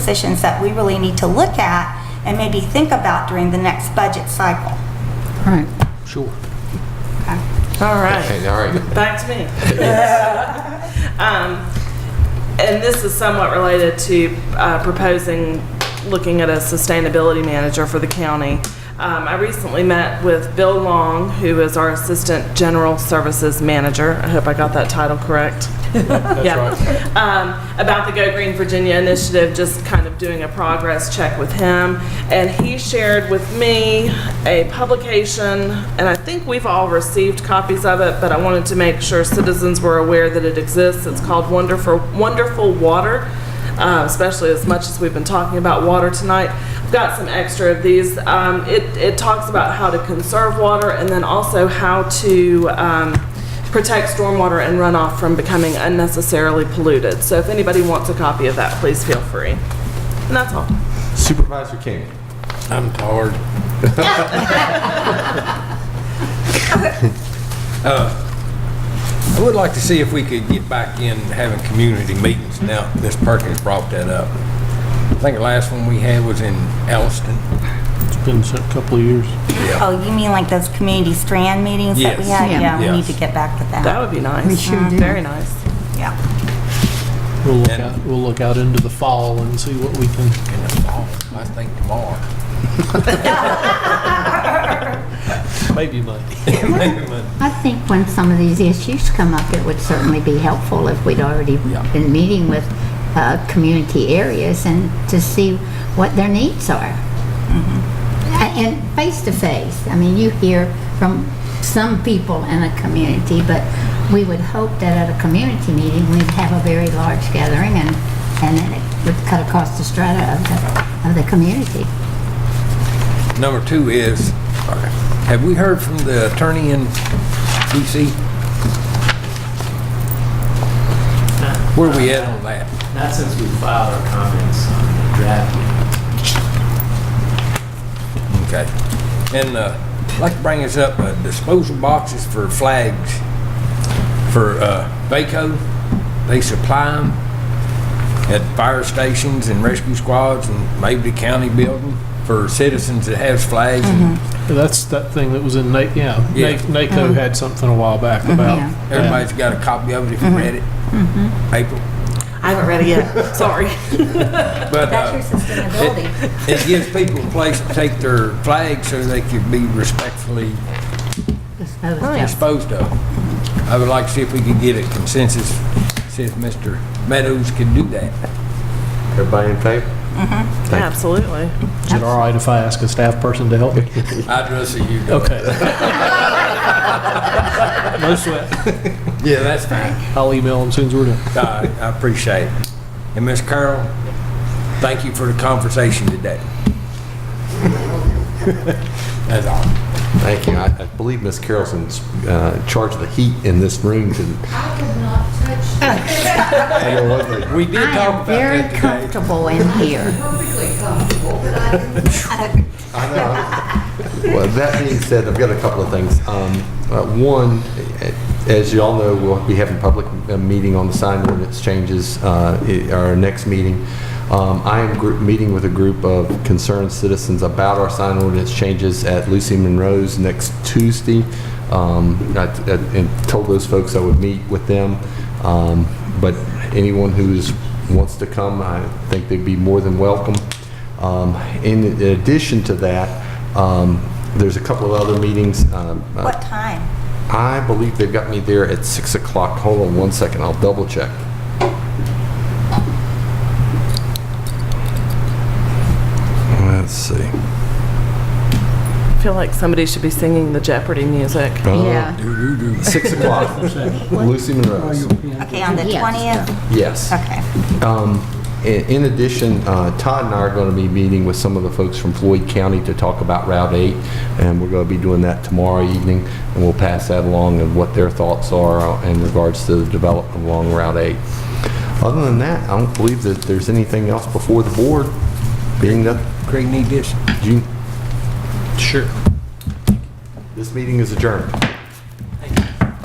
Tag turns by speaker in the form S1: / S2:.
S1: positions that we really need to look at and maybe think about during the next budget cycle.
S2: Right.
S3: Sure.
S4: All
S3: Okay,
S4: right,
S3: all right.
S4: back to me. Um, And this is somewhat related to uh, proposing, looking at a sustainability manager for the county. Um, I recently met with Bill Long, who is our Assistant General Services Manager. I hope I got that title correct. Yeah. Um, About the Go Green Virginia initiative, just kind of doing a progress check with him. And he shared with me a publication, and I think we've all received copies of it, but I wanted to make sure citizens were aware that it exists. It's called Wonderful, Wonderful Water, uh, especially as much as we've been talking about water tonight. I've got some extra of these. Um, It, it talks about how to conserve water and then also how to um, protect stormwater and runoff from becoming unnecessarily polluted. So if anybody wants a copy of that, please feel free. And that's all.
S5: Supervisor King.
S6: I'm tired. Uh, I would like to see if we could get back in having community meetings now Ms. Perkins brought that up. I think the last one we had was in Alliston.
S3: It's been a couple of years.
S1: Oh, you mean like those community strand meetings that we
S6: Yes.
S1: had?
S2: Yeah.
S1: Yeah, we need
S6: Yes.
S1: to get back to
S4: That
S1: that.
S4: would be nice.
S2: We sure
S4: Mm,
S2: do.
S4: Very nice.
S1: Yeah.
S3: We'll look
S6: And-
S3: out, we'll look out into the fall and see what we can.
S6: in the fall, I think tomorrow.
S3: Maybe Monday.
S6: Maybe Monday.
S2: I think when some of these issues come up, it would certainly be helpful if we'd already
S6: Yeah.
S2: been meeting with uh, community areas and to see what their needs are.
S6: Mm-hmm.
S2: A- And face to face, I mean, you hear from some people in a community, but we would hope that at a community meeting, we'd have a very large gathering and, and then it would cut across the strata of the, of the community.
S6: Number two is, have we heard from the attorney in DC? Where we at on that?
S7: Not since we filed our comments on the draft
S6: Okay.
S7: yet.
S6: And uh, I'd like to bring us up uh, disposal boxes for flags for uh, Baco. They supply them at fire stations and rescue squads and maybe the county building for citizens that has flags. and
S2: Mm-hmm.
S3: That's that thing that was in Na, yeah.
S6: Yeah.
S3: Na- NACO had something a while back about.
S2: Yeah.
S3: that.
S6: Everybody's got a copy of it if you read it.
S2: Mm-hmm.
S6: April.
S4: I haven't read it yet. Sorry.
S6: But, uh,
S2: That's your sustainability.
S6: It gives people a place to take their flag so they can be respectfully
S2: disposed of.
S6: disposed of. I would like to see if we could get a consensus, see if Mr. Meadows can do that.
S5: Everybody in favor?
S4: Absolutely.
S3: Is it all right if I ask a staff person to help me?
S6: I'd rather see you do it.
S3: Okay. No sweat.
S6: Yeah, that's fine.
S3: I'll email them as soon as we're done.
S6: I I appreciate it. And Ms. Carroll, thank you for the conversation today. That's all.
S5: Thank you. I I believe Ms. Carroll's in uh, charge of the heat in this room. to-
S6: We did
S2: I am
S6: talk about
S2: very
S6: that today.
S2: comfortable in here.
S5: Well, that being said, I've got a couple of things. Um, uh, One, eh, as you all know, we'll be having a public uh, meeting on the sign ordinance changes, uh, i- our next meeting. Um, I am group- meeting with a group of concerned citizens about our sign ordinance changes at Lucy Monroe's next Tuesday. Um, I t- And told those folks I would meet with them. Um, But anyone who's, wants to come, I think they'd be more than welcome. Um, In addition to that, um, there's a couple of other meetings. um, uh,
S1: What time?
S5: I believe they've got me there at 6 o'clock. Hold on one second, I'll double check. Let's see.
S4: I feel like somebody should be singing the Jeopardy music.
S5: Uh,
S2: Yeah.
S5: 6 o'clock, Lucy Monroe's.
S1: Okay, on the
S2: Yes.
S1: 20th?
S5: Yes.
S1: Okay.
S5: Um, In in addition, uh, Todd and I are going to be meeting with some of the folks from Floyd County to talk about Route 8, and we're going to be doing that tomorrow evening, and we'll pass that along and what their thoughts are uh, in regards to the development along Route 8. Other than that, I don't believe that there's anything else before the board, being that,
S6: Greg need this.
S5: you-
S3: Sure.
S5: this meeting is adjourned.